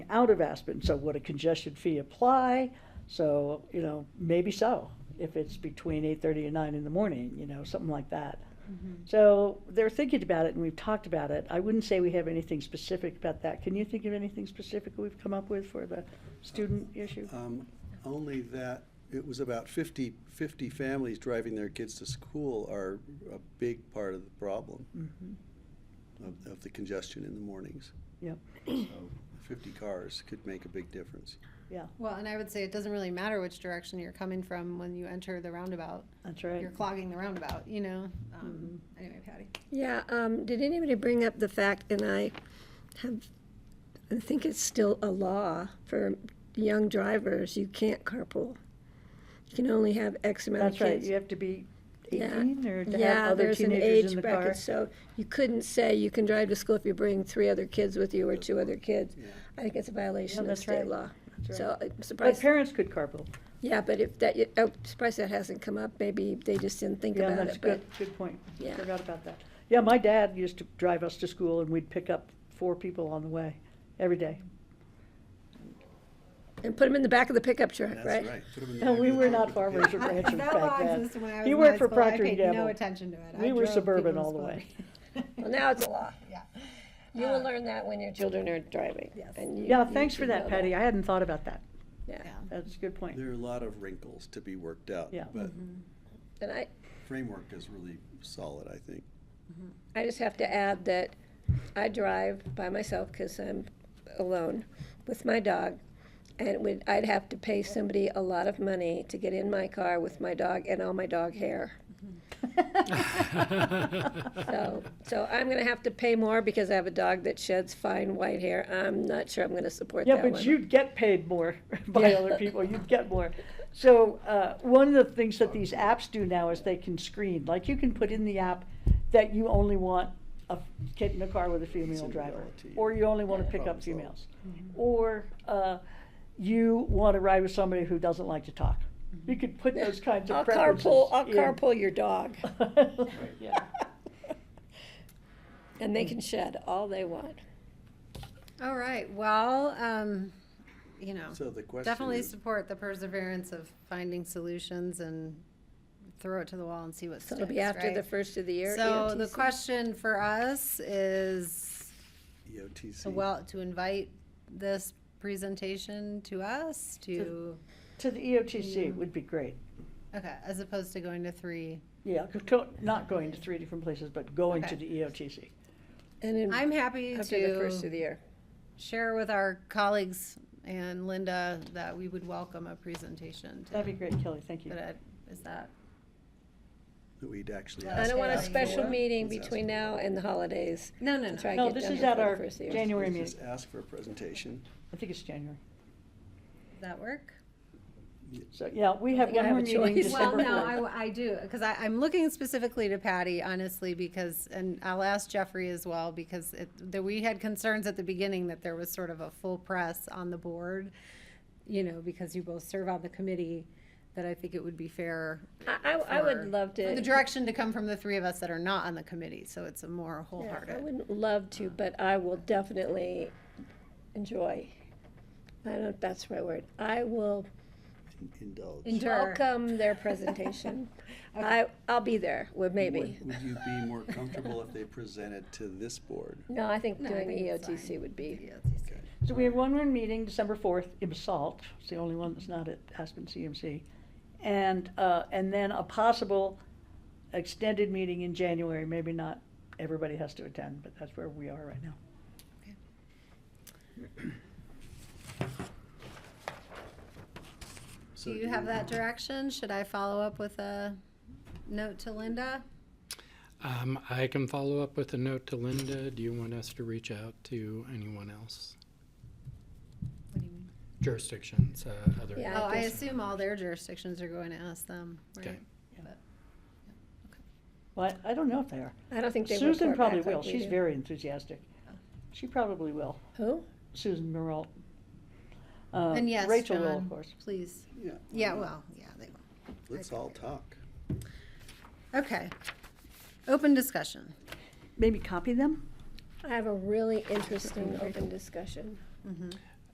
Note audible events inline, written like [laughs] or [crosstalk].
out of Aspen. So would a congestion fee apply? So, you know, maybe so, if it's between eight thirty and nine in the morning, you know, something like that. Mm-hmm. So they're thinking about it and we've talked about it. I wouldn't say we have anything specific about that. Can you think of anything specific we've come up with for the student issue? Um, Only that, it was about 50, 50 families driving their kids to school are a big part of the problem Mhm. of, of the congestion in the mornings. Yep, So 50 cars could make a big difference. yeah, Well, and I would say it doesn't really matter which direction you're coming from when you enter the roundabout. that's right. You're clogging the roundabout, you know? Um, Mm-hmm. Anyway, Patty. Yeah, um, did anybody bring up the fact, and I have, I think it's still a law for young drivers, you can't carpool. You can only have X amount of That's right, kids. you have to be Yeah. eighteen or to have Yeah, other there's an teenagers in age the car. bracket, so you couldn't say you can drive to school if you bring three other kids with you or two other kids. Yeah. I think it's a violation of that's right. state law. That's So right. I'm But surprised, parents could carpool. yeah, but if that, I'm surprised that hasn't come up, maybe they just didn't think Yeah, about that's it, a but, good, good point. Yeah. Forgot about that. Yeah, my dad used to drive us to school and we'd pick up four people on the way every day. and put them in the back of the pickup truck, That's right? right. Put 'em in the No, back we of the were truck not with farm kids. raisers ranchers That law back then. existed when I was You in worked high for school. I Procter and paid No Gamble. attention to it. We were I drove people suburban to all the school. way. [laughs] Well, now it's a law. Yeah. Uh, You will learn that when your children are driving. Yes. and you- Yeah, you thanks for should that, know Patty. I hadn't thought about that. Yeah, Yeah. That's a good point. There are a lot of wrinkles to be worked out. Yeah. But and I, framework is really solid, I think. I just have to add that I drive by myself because I'm alone with my dog. And it would, I'd have to pay somebody a lot of money to get in my car with my dog and all my dog hair. [laughs] [laughs] So, so I'm gonna have to pay more because I have a dog that sheds fine white hair. I'm not sure I'm gonna support that Yeah, one. but you'd get paid more [laughs] by Yeah. other people, you'd get more. So, uh, one of the things that these apps do now is they can screen, like you can put in the app that you only want a kid in a car with a female driver, Similarity. or you only wanna pick up Problem solved. females. Or, uh, you wanna ride with somebody who doesn't like to talk. You could put those kinds I'll of preferences carpool, I'll in. carpool your dog Yeah. and they can shed all they want. All right, well, um, you know, So the question definitely is- support the perseverance of finding solutions and throw it to the wall and see what So sticks, it'll be after the E right? first of the year. So the EOTC. question for us is, EOTC. to well, to invite this presentation to us, to, [laughs] To the E EOTC would be great. okay, as opposed to going to three. Yeah, to- not going to three different places, but going to Okay. the E EOTC. And in, I'm happy after the first of to the year. share with our colleagues and Linda that we would welcome a presentation. to- That'd be great, Kelly, thank you. uh, But I- is that, That we'd actually I I ask don't want a for. special meeting Let's ask between for now it. and the holidays no, no, to no. try to No, get this done is before at our the first of the year. January Let's meeting. Just ask for a presentation. I think it's January. That work? So, yeah, we have think I one have more a meeting choice. Well, December no, fourth. I, I do, because I, I'm looking specifically to Patty, honestly, because, and I'll ask Jeffrey as well, because it, that we had concerns at the beginning that there was sort of a full press on the board, you know, because you both serve on the committee, that I think it would be fair. I, I- I for- would love for The to, direction to come from the three of us that are not on the committee, so it's a more Yeah, I wholehearted. wouldn't love to, but I will definitely enjoy. I don't know if that's the right word. I will Indulge. Endure. [laughs] welcome their presentation. I, I'll be there, with maybe. Would would you be more comfortable if they presented to this board? No, I think No, I doing E think it's EOTC fine. would be, Yeah, it's- Okay. So we have one more meeting, December fourth, in Salt. It's the only one that's not at Aspen CMC. And, uh, and then a possible extended meeting in January, maybe not everybody has to attend, but that's where we are right now. So Do you have that direction? Should I follow up with a note to Linda? Um, I can follow up with a note to Linda. Do you want us to reach out to anyone else? What do you mean? Jurisdictions, uh, other. Yeah, Oh, I guess- assume all their jurisdictions are going to ask them, Okay. right? Well, I I don't know if they are. I don't think they report Susan probably back like will. we She's do. very enthusiastic. She probably will. Who? Susan Merle. Uh, And yes, Rachel will, John, of course. Please. Yeah. Yeah, well, yeah, they will. Let's all talk. Okay. Open discussion. Maybe copy them? Mm-hmm. I have a really interesting open discussion.